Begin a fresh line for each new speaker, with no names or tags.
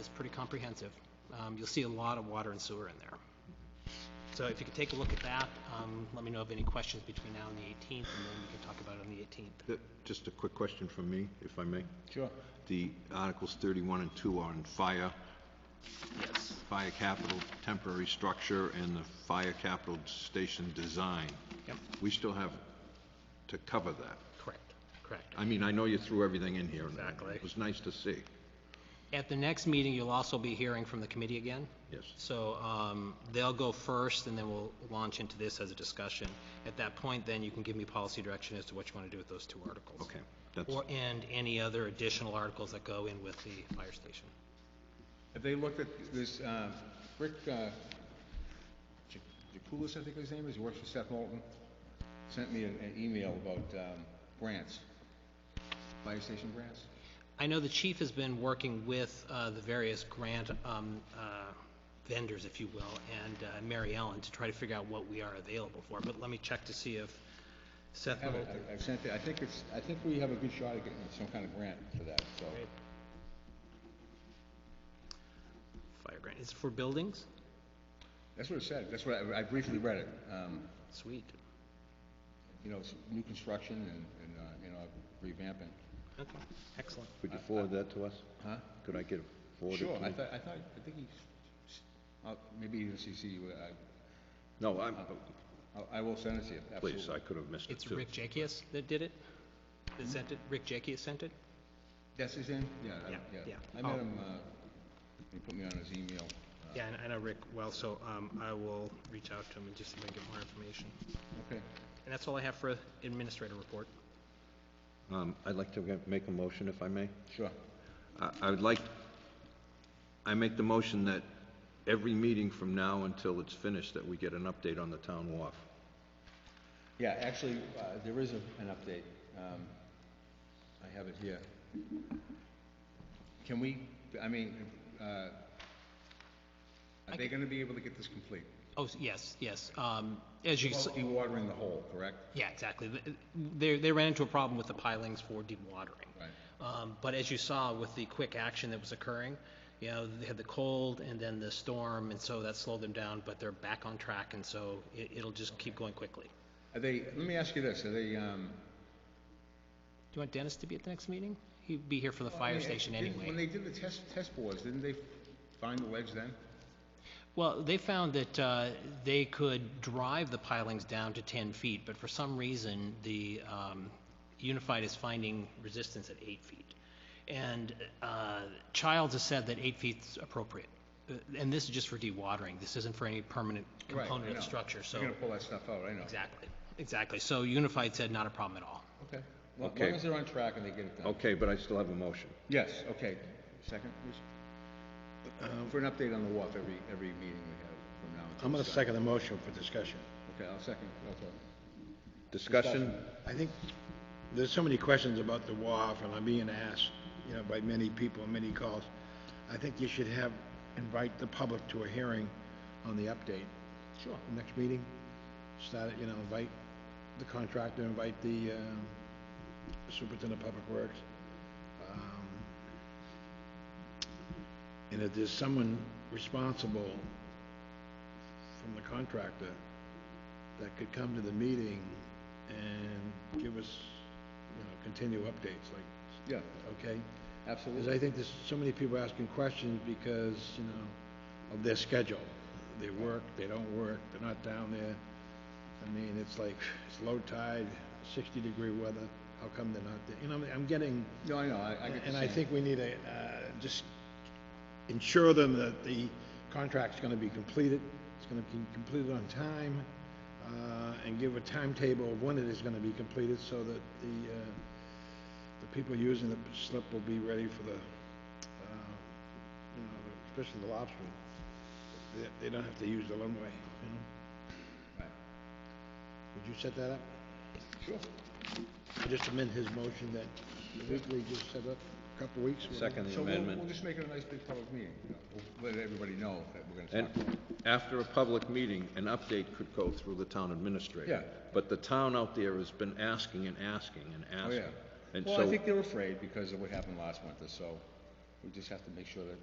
is pretty comprehensive. Um, You'll see a lot of water and sewer in there. So if you could take a look at that, um, let me know of any questions between now and the 18th, and then we can talk about it on the 18th.
Uh, Just a quick question from me, if I may.
Sure.
The Articles 31 and 2 are on fire,
Yes.
fire capital temporary structure, and the fire capital station design.
Yep,
We still have to cover that.
correct, correct.
I mean, I know you threw everything in here. and
Exactly.
It was nice to see.
At the next meeting, you'll also be hearing from the committee again.
Yes.
So um, they'll go first, and then we'll launch into this as a discussion. At that point, then you can give me policy direction as to what you want to do with those two articles.
Okay, that's,
Or, and any other additional articles that go in with the fire station.
Have they looked at this, um, Rick, uh, Ja- Jakulis, I think his name is, he works for Seth Moulton, sent me an an email about um, grants, fire station grants.
I know the chief has been working with uh, the various grant um, uh, vendors, if you will, and uh, Mary Ellen to try to figure out what we are available for, but let me check to see if Seth
I have
will...
it, I- I've sent it, I think it's, I think we have a good shot at getting some kind of grant for that, so.
Fire grant, is it for buildings?
That's what it said, that's what, I I briefly read it, um,
Sweet,
you know, it's new construction and, and, uh, you know, revamping.
okay, excellent.
could you forward that to us?
Huh?
Could I get it forwarded
Sure,
to
I
me?
thought, I thought, I think he, s- uh, maybe he didn't CC you, I,
No, I'm,
I- I will send it to you, absolutely.
please, I could have missed it
It's
too.
Rick Jakias that did it? That sent it, Rick Jakias sent it?
That's his name? Yeah, I-
Yeah,
yeah.
yeah.
I
Oh.
met him, uh, he put me on his email. Uh,
Yeah, I- I know Rick well, so um, I will reach out to him and just see if I can get more information.
Okay.
And that's all I have for administrator report.
Um, I'd like to make a motion, if I may.
Sure.
I- I would like, I make the motion that every meeting from now until it's finished, that we get an update on the town wharf.
Yeah, actually, uh, there is a- an update. Um, I have it here. Can we, I mean, uh, are they gonna be able to get this complete?
Oh, s- yes, yes, um, as you, s-
Well, Dewatering the hole, correct?
yeah, exactly. Th- They, they ran into a problem with the pilings for dewatering.
Right.
Um, But as you saw with the quick action that was occurring, you know, they had the cold and then the storm, and so that slowed them down, but they're back on track, and so it, it'll just keep going quickly. Do
Are they, let me ask you this, are they, um...
you want Dennis to be at the next meeting? He'd be here for the
I
fire
mean,
station
didn't- When
anyway.
they did the test, test bores, didn't they find the ledge then?
Well, they found that uh, they could drive the pilings down to 10 feet, but for some reason, the um, Unified is finding resistance at 8 feet. And uh, Childs has said that 8 feet's appropriate. Uh, And this is just for dewatering. This isn't for any permanent
Right, I
component of
know.
the structure, so...
You're gonna pull that stuff out, I know.
Exactly, exactly. So Unified said not a problem at all.
Okay. Well, As
Okay.
long as they're on track and they get it done.
Okay, but I still have a motion.
Yes, okay. Second, please. Uh, For an update on the WAF every, every meeting we have from now until...
I'm going to
Sun-
second the motion for discussion.
Okay, I'll second, okay.
Discussion?
I think there's so many questions about the WAF, and I'm being asked, you know, by many people, many calls. I think you should have, invite the public to a hearing on the update. Sure. Next meeting, start, it, you know, invite the contractor, invite the um, superintendent of public works. Um, And if there's someone responsible from the contractor that could come to the meeting and give us, you know, continue updates, like,
Yeah,
okay? Because
absolutely.
I think there's so many people asking questions because, you know, of their schedule. They work, they don't work, they're not down there. I mean, it's like, it's low tide, sixty degree weather, how come they're not there? You know, I'm- I'm getting
No, I know, I, I get the
and I
same.
think we need to uh, just ensure them that the contract's going to be completed, it's going to be completed on time, uh, and give a timetable of when it is going to be completed so that the, uh, the people using the slip will be ready for the, uh, you know, especially the lobster. They- They don't have to use the runway, you know?
Right.
Would you set that up?
Sure.
Just amend his motion that we just set up a couple weeks. whatever.
Second the
So we'll, we'll
amendment.
just make it a nice big public meeting, you know, we'll let everybody know that we're gonna
And
talk. about it.
after a public meeting, an update could go through the town administrator.
Yeah.
But the town out there has been asking and asking and
Oh,
asking.
yeah.
And
Well, I
so,
think they're afraid because of what happened last winter, so we just have to make sure that